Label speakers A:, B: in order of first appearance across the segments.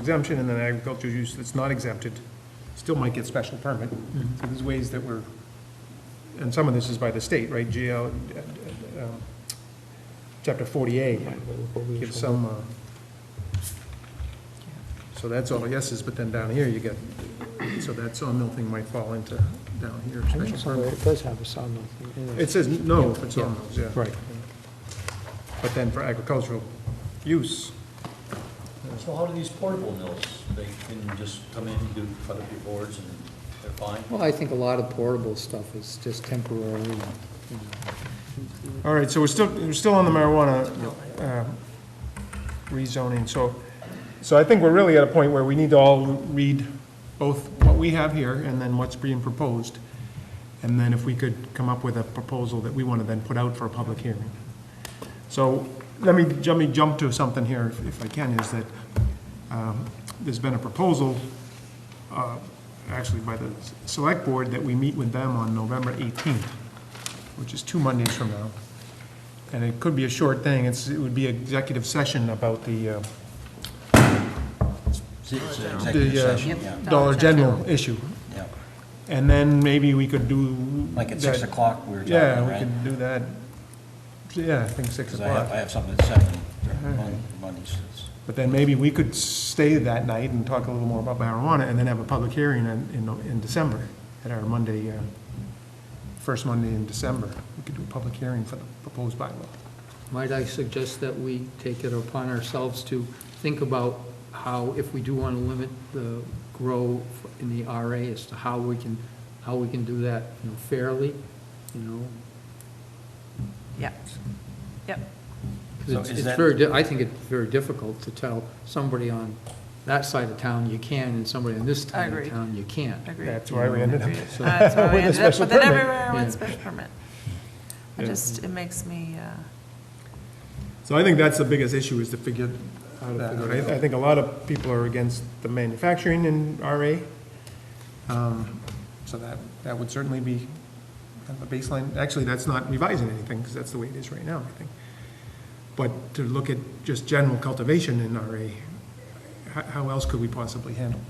A: exemption, and then agricultural use that's not exempted still might get special permit.
B: Mm-hmm.
A: So there's ways that we're, and some of this is by the state, right? GL, uh, um, chapter 40A gives some, uh, so that's all yeses, but then down here you get, so that sawmill thing might fall into down here,
B: I think
A: special
B: it's on there.
A: permit.
B: It does have a sawmill thing in
A: It
B: it.
A: says no for sawmills, yeah.
B: Right.
A: But then for agricultural use,
C: So how do these portable mills, they can just come in, do cut up your boards and they're fine?
B: Well, I think a lot of portable stuff is just temporary. you know.
A: All right, so we're still, we're still on the marijuana uh, rezoning, so, so I think we're really at a point where we need to all read both what we have here and then what's being proposed. And then if we could come up with a proposal that we want to then put out for a public hearing. So let me, let me jump to something here, if- if I can, is that um, there's been a proposal, uh, actually by the select board, that we meet with them on November 18th which is two Mondays from now. And it could be a short thing, it's, it would be executive session about the, uh,
C: It's an executive
A: the
C: session,
A: uh,
C: yeah,
A: Dollar General issue.
C: yeah.
A: And then maybe we could do.
C: Like at six
A: that-
C: o'clock, we were talking,
A: Yeah, we
C: right?
A: could do that. Yeah, I think six
C: Because I have, I
A: o'clock.
C: have something at seven, Mon- Mondays. it's-
A: But then maybe we could stay that night and talk a little more about marijuana and then have a public hearing in, in, in December, at our Monday, uh, first Monday in December. We could do a public hearing for the proposed bylaw.
D: Might I suggest that we take it upon ourselves to think about how, if we do want to limit the grow in the RA, as to how we can, how we can do that, you know, fairly, you know?
E: Yep, yep.
D: 'cause
C: So
D: it's-
C: is
D: it's
C: that-
D: very, di- I think it's very difficult to tell somebody on that side of town you can, and somebody on this side of
E: Agreed.
D: town you can't.
E: Agreed.
A: That's why we ended up.
E: Uh, That's where we
A: with a
E: ended up
A: special
E: with an
A: permit.
E: everywhere
D: Yeah.
E: with special permit. It
A: Yeah.
E: just, it makes me, uh,
A: So I think that's the biggest issue, is to figure out that out. I I think a lot of people are against the manufacturing in RA. Um, So that, that would certainly be kind of a baseline. Actually, that's not revising anything, because that's the way it is right now, I think. But to look at just general cultivation in RA, how, how else could we possibly handle?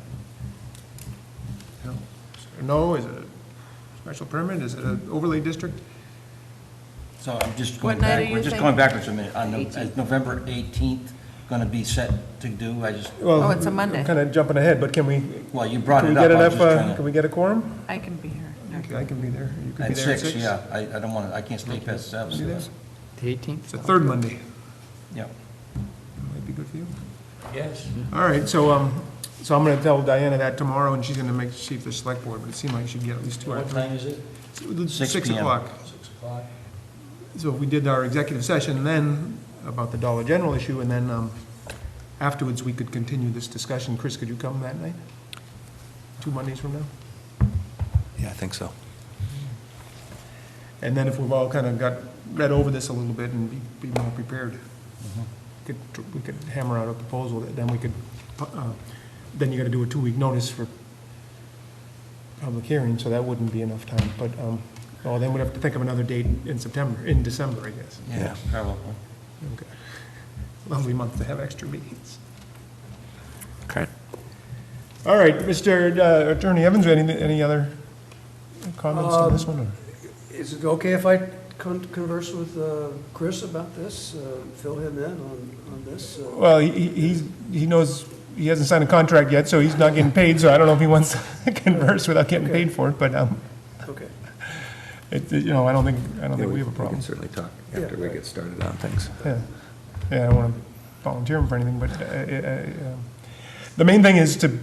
A: it? You know, is it a No, is it a special permit? Is it an overlay district?
C: So I'm just going
E: What night
C: back,
E: are
C: we're
E: you
C: just
E: thinking?
C: going backwards a minute. On the- is November eighteenth going to be set to do, I just,
E: Oh, it's a Monday.
A: Kind of jumping ahead, but can we,
C: well, you brought
A: can we
C: it
A: get
C: up. I was
A: enough,
C: just
A: uh,
C: trying
A: can
C: to.
A: we get a quorum?
E: I can be here. No.
A: Okay, I can be there. You could be
C: At
A: there at
C: six,
A: six?
C: yeah, I, I don't want to, I can't stay past
A: Be
C: seven.
A: there?
D: The 18th?
A: It's the third Monday.
C: Yeah.
A: Might be good for you.
C: Yes.
A: All right, so, um, so I'm gonna tell Diana that tomorrow, and she's gonna make, she the select board, but it seemed like she'd get at least two
C: What
A: hours.
C: time is it? Six
A: Six
C: PM.
A: o'clock.
C: Six o'clock.
A: So if we did our executive session then about the Dollar General issue, and then, um, afterwards, we could continue this discussion. Chris, could you come that night? Two Mondays from now?
F: Yeah, I think so.
A: And then if we've all kind of got, read over this a little bit and be, be more prepared, could, we could hammer out a proposal that then we could, uh, then you gotta do a two-week notice for public hearing, so that wouldn't be enough time, but, um, oh, then we'd have to think of another date in September, in December, I guess.
C: Yeah,
F: Yeah.
C: probably.
A: Okay. Lovely month to have extra meetings.
F: Okay.
A: All right, Mr. uh, Attorney Evans, any, any other comments on this one? or?
G: Is it okay if I con- converse with uh, Chris about this, uh, fill him in on on this? uh,
A: Well, he- he, he's, he knows, he hasn't signed a contract yet, so he's not getting paid, so I don't know if he wants to converse without getting paid for it, but, um,
G: Okay.
A: it, you know, I don't think, I don't think we have a
F: We
A: problem.
F: can certainly talk
G: Yeah,
F: after we
G: right.
F: get started on things.
A: Yeah, yeah, I don't want to volunteer him for anything, but, uh, uh, uh, um, the main thing is to,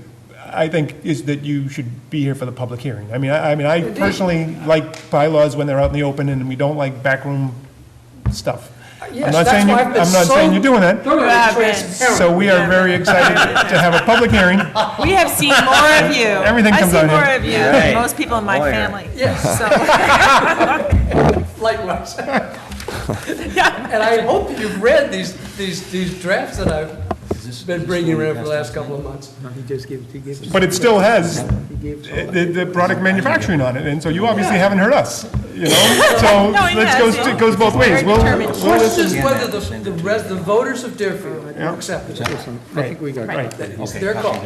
A: I think, is that you should be here for the public hearing. I mean, I, I mean, I personally like bylaws when they're out in the open, and we don't like backroom stuff. I'm
G: Uh, Yes,
A: not
G: that's
A: saying you-
G: why I've been
A: I'm not
G: so
A: saying you're doing that,
G: thoroughly
E: You have been.
G: transparent.
A: so we are very excited to have a public hearing.
E: We have seen more of you.
A: Everything comes out here.
E: I see more of you
C: Right.
E: than most people in my
C: Lawyer.
E: family.
G: Yes.
E: So,
G: Likewise. And I hope you've read these, these, these drafts that I've been bringing around for the last couple of months.
D: No, he just gives, he gives.
A: But it still has
D: He gives.
A: the, the product manufacturing on it, and so you obviously haven't heard us. you know? So,
E: No, I
A: let's
E: know,
A: goes,
E: so
A: it goes both ways.
E: very
A: We'll,
E: determined.
A: we'll
C: Question
A: listen.
C: is whether the, the res, the voters of Deerfield
A: Yeah.
C: accept it.
H: Listen, I think we got
A: Right.
H: it.
C: That- It's their call.